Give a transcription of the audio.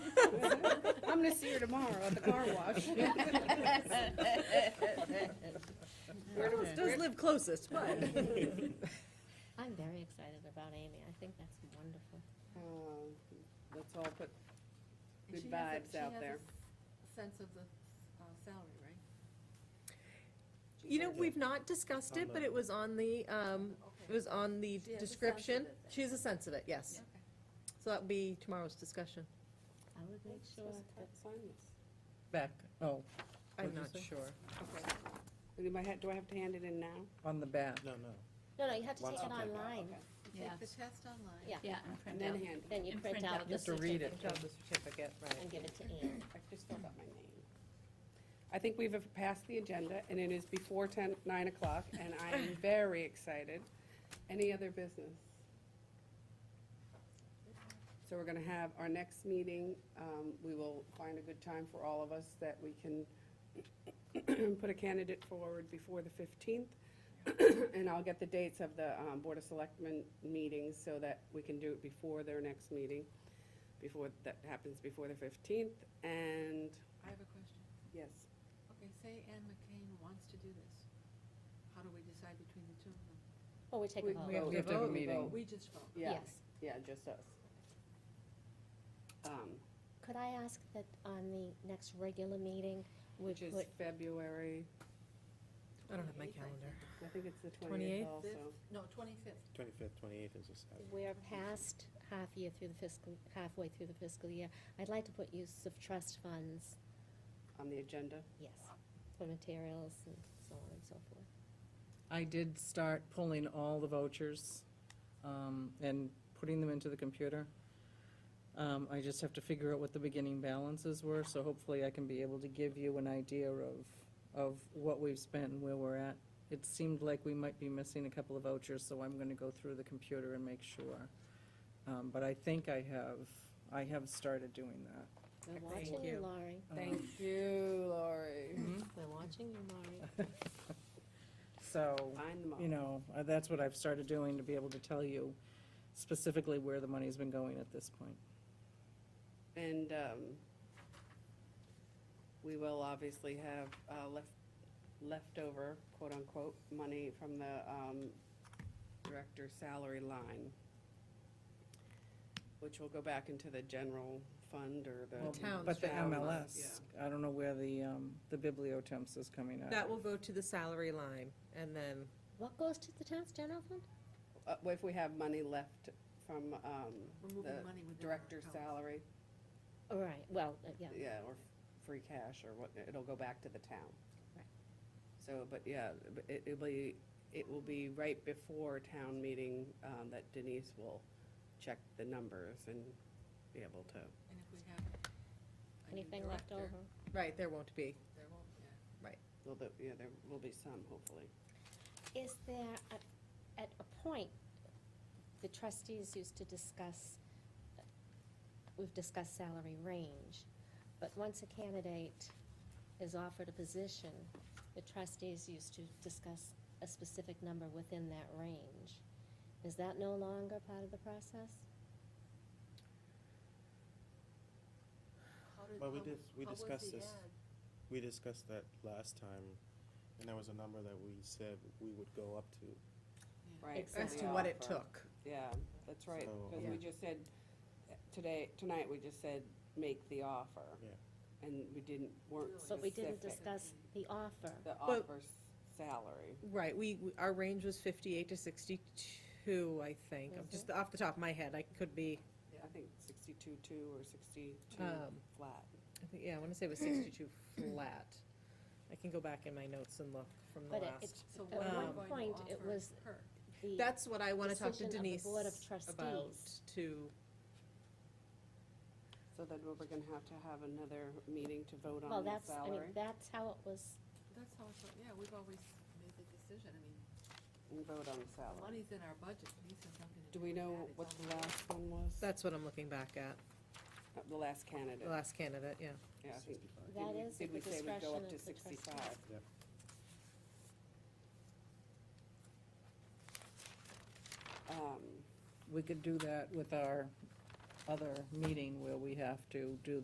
I'm gonna see her tomorrow at the car wash. Those those live closest, but. I'm very excited about Amy. I think that's wonderful. Um, Let's all put And good she has a- vibes out there. She has a s- sense of the uh, salary, right? You know, we've not discussed it, but it was on the, um, it Okay. was on the She has a sense of description. it then. She has a sense of it, yes. Okay. So that'll be tomorrow's discussion. I would make sure that, Back, oh, I'm What'd you not say? sure. Okay. Do I ha- do I have to hand it in now? on the back. No, no. no, no, you have to Once take it you take that, online. You Take the test online. Yeah. Yeah, and And print then out. hand it. Then you And print print out out the Just to read it, certificate not the certificate, right. and give it to Ann. I just filled out my name. I think we've passed the agenda, and it is before 10, 9 o'clock, and I am very excited. Any other business? So we're going to have our next meeting. um, We will find a good time for all of us that we can put a candidate forward before the 15th. And I'll get the dates of the um, Board of Selectmen meetings so that we can do it before their next meeting, before, that happens before the 15th. And, I have a question. yes, Okay, say Ann McCain wants to do this. How do we decide between the two of them? Well, Oh, we take We- a vote. we have We have to have a vote, meeting. We just vote. yeah, Yes. yeah, just us. Um, Could I ask that on the next regular meeting, we Which is put, February, I don't have my 28th, I calendar. think. I think it's the 28th? 28th also. Fifth- No, twenty-fifth. Twenty-fifth, twenty-eighth is a Saturday. we're past half year through the fiscal, halfway through the fiscal year. I'd like to put use of trust funds, On the agenda. yes, for materials and so on and so forth. I did start pulling all the vouchers um, and putting them into the computer. Um, I just have to figure out what the beginning balances were, so hopefully I can be able to give you an idea of, of what we've spent and where we're at. It seemed like we might be missing a couple of vouchers, so I'm gonna go through the computer and make sure. Um, But I think I have, I have started doing that. We're Thank watching you, you. Laurie. Um, Thank you, Lori. We're watching you, Laurie. So. Find them all. you know, uh, that's what I've started doing to be able to tell you specifically where the money's been going at this point. And um, we will obviously have uh, left leftover, quote-unquote, money from the um, director's salary line, which will go back into the general fund or Well, the. town's But the town fund, MLS, I don't know where the, um, the bibliotemps is coming out. That of. will go to the salary line, and then, What goes to the town's general fund? yeah. Uh, If we have money left from um, We're the moving money within our director's accounts. salary, All right, well, uh, yeah. yeah, or free cash or what, it'll go back to the town. Right. So, but yeah, but it, it'll be, it will be right before town meeting, um, that Denise will check the numbers and be able to. And if we have a new Anything left director, over? right, there won't be. There won't, yeah. Well, there- yeah, there will be some, hopefully. Is there, a- at a point, the trustees used to discuss, we've discussed salary range, but once a candidate is offered a position, the trustees used to discuss a specific number within that range. Is that no longer part of the process? How did- Well, we how did- was- we how was discussed the this. ad? We discussed that last time, and there was a number that we said we would go up to. Right. As As to what it took. Yeah, that's right, So- because we Yeah. just said, uh, today, tonight, we just said, make the offer. Yeah. And we didn't, weren't But But we didn't specific. discuss the offer. The offer's salary. Right, we, we- our range was fifty-eight to sixty-two, I think, I'm just off the top of my head, I could be, I think sixty-two, two, or sixty-two um, flat. I think- yeah, I wanna say it was sixty-two flat. I can go back in my notes and look from the But it- last. it's, So at what are we Um, one going point, to it offer was her? the. That's what I wanna talk to decision of the Denise Board of about, Trustees. to, So then we're gonna have to have another meeting to vote Well, on the that's, I mean, salary that's how it was, That's how it's, yeah, we've always made the decision. I mean, and vote on the salary. money's in our budget. Denise has nothing to Do do we with know that. It's what on the last one was? that's what I'm looking back at, Uh, The last candidate, the last candidate, yeah. yeah, I think. Sixty-five. Did that we- is at Did the we say we'd discretion go of up the to trustees. sixty-five? Um, Um, We could do that with our other meeting where we have to do